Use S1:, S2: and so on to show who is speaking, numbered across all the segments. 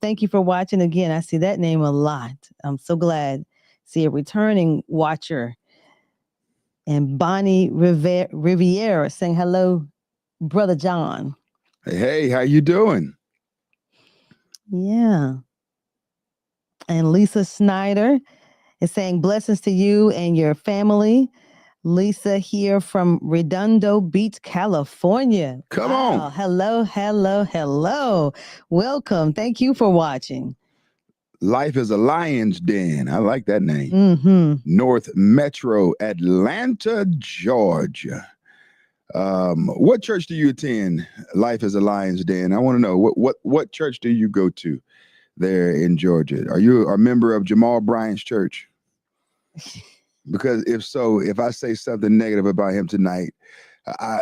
S1: Thank you for watching again. I see that name a lot. I'm so glad to see a returning watcher. And Bonnie Riviera, Riviera saying hello, brother John.
S2: Hey, how you doing?
S1: Yeah. And Lisa Snyder is saying blessings to you and your family. Lisa here from Redondo Beach, California.
S2: Come
S1: Wow.
S2: on.
S1: Hello, hello, hello. Welcome. Thank you for watching.
S2: Life is a lion's den. I like that name.
S1: hmm
S2: North Metro, Atlanta, Georgia. Um, what church do you attend? Life is a Lion's Den. I want to know what what what church do you go to there in Georgia? Are you a member of Jamal Bryant's church? Because if so, if I say something negative about him tonight, I I-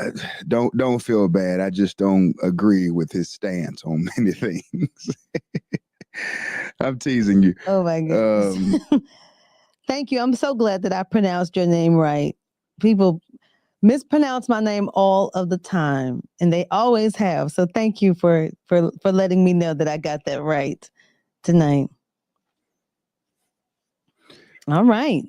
S2: don't don't feel bad. I just don't agree with his stance on many things. I'm teasing you.
S1: Oh my goodness.
S2: Um,
S1: Thank you. I'm so glad that I pronounced your name right. People mispronounce my name all of the time, and they always have. So thank you for for for letting me know that I got that right tonight. All right.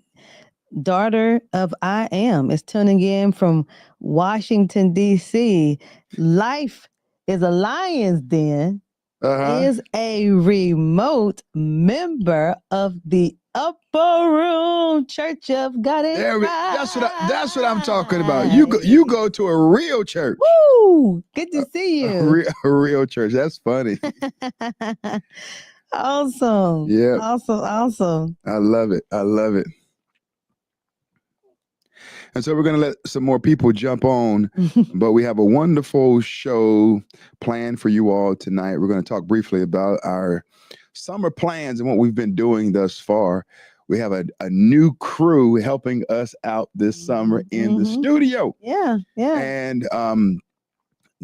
S1: Daughter of I Am is tuning in from Washington, D.C. Life is a Lion's Den.
S2: uh-huh.
S1: is a remote member of the Upper Room Church of God. in
S2: There we, that's what I, that's what I'm talking about. You go,
S1: Christ.
S2: you go Uh, to a real church,
S1: Woo! Good to see
S2: a
S1: you.
S2: real, a real church. That's funny.
S1: awesome.
S2: uh, Yeah,
S1: Awesome. Awesome.
S2: I love it. I love it. And so we're gonna let some more people jump on, but we have a wonderful show planned for you all tonight. We're gonna talk briefly about our summer plans and what we've been doing thus far. We have a, a new crew helping us out this summer in the
S1: Mhm.
S2: studio.
S1: yeah. Yeah.
S2: And um,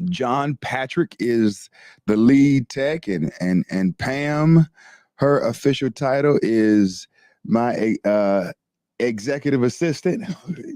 S2: John Patrick is the lead tech, and and and Pam, her official title is my uh, executive assistant.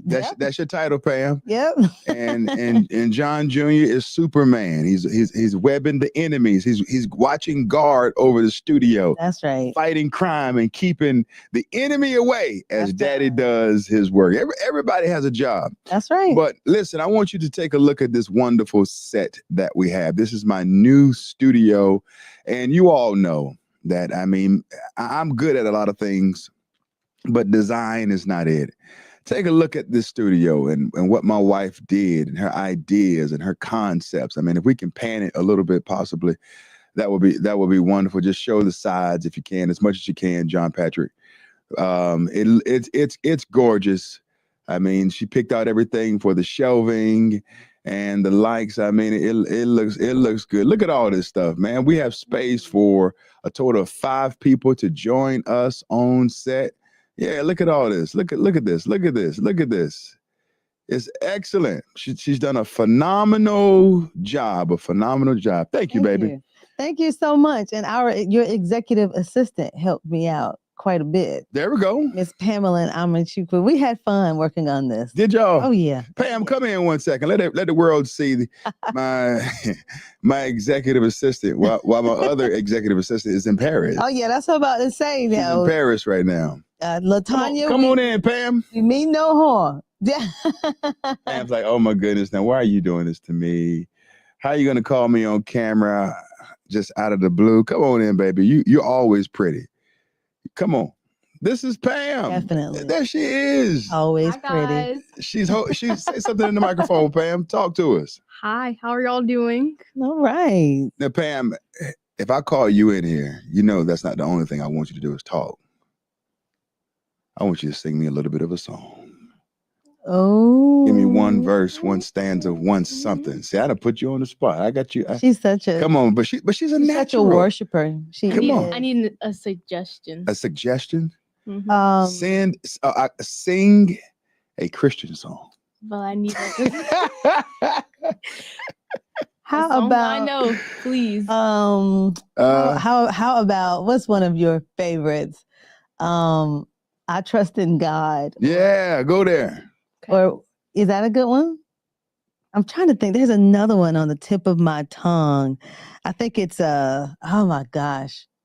S2: That's
S1: Yep.
S2: that's your title, Pam.
S1: Yep.
S2: And and and John Jr. is Superman. He's he's he's webbing the enemies. He's he's watching guard over the studio,
S1: That's right.
S2: fighting crime and keeping the enemy away as
S1: That's
S2: Daddy
S1: right.
S2: does his work. Every, everybody has a job.
S1: That's right.
S2: But listen, I want you to take a look at this wonderful set that we have. This is my new studio. And you all know that, I mean, I- I'm good at a lot of things, but design is not it. Take a look at this studio and, and what my wife did and her ideas and her concepts. I mean, if we can pan it a little bit, possibly, that would be that would be wonderful. Just show the sides if you can, as much as you can, John Patrick um it it's it's it's gorgeous i mean she picked out everything for the shelving and the likes i mean it it looks it looks good look at all this stuff man we have space for a total of five people to join us on set yeah look at all this look at look at this look at this look at this it's excellent she, she's done a phenomenal job a phenomenal job thank you
S1: Thank
S2: baby
S1: you. Thank you so much. And our your executive assistant helped me out quite a bit.
S2: there we go
S1: Miss Pamela and Amachukwu. We had fun working on this.
S2: did y'all
S1: Oh yeah.
S2: Pam, come in one second. Let it, let the world see the- my my executive assistant while, while my other executive assistant is in Paris.
S1: Oh yeah, that's what I'm about to say
S2: She's in
S1: now.
S2: Paris right now.
S1: Uh,
S2: Come on,
S1: Latanya,
S2: come
S1: we,
S2: on in, Pam.
S1: we mean no harm. Yeah.
S2: Pam's like, oh my goodness, now why are you doing this to me? How are you gonna call me on camera just out of the blue? Come on in, baby. You you're always pretty. Come on. This is Pam.
S1: Definitely. Oh.
S2: There she is.
S1: Always
S3: Hi
S1: pretty.
S3: guys.
S2: She's ho- she's say something in the microphone, Pam. Talk to us.
S3: Hi, how are y'all doing?
S1: All right.
S2: Now, Pam, if I call you in here, you know that's not the only thing I want you to do is talk. I want you to sing me a little bit of a song.
S1: Oh.
S2: Give me one verse, one stanza, one something. See, I done put you on the spot. I got you. I-
S1: She's such a
S2: come on, but she, but she's a
S1: she's such a
S2: natural.
S1: worshiper. She
S3: I
S2: Come
S3: need,
S2: on.
S3: I need a suggestion.
S2: A suggestion:
S3: Mhm.
S1: um
S2: send, uh, uh, sing a Christian song.
S3: well, I need a, a
S2: uh,
S1: how
S3: song that I
S1: about
S3: know, please.
S1: um
S2: Uh,
S1: How, how how about what's one of your favorites? Um, I trust in God.
S2: yeah, go there.
S3: Okay.
S1: Or is that a good one? I'm trying to think. There's another one on the tip of my tongue. I think it's uh oh my gosh.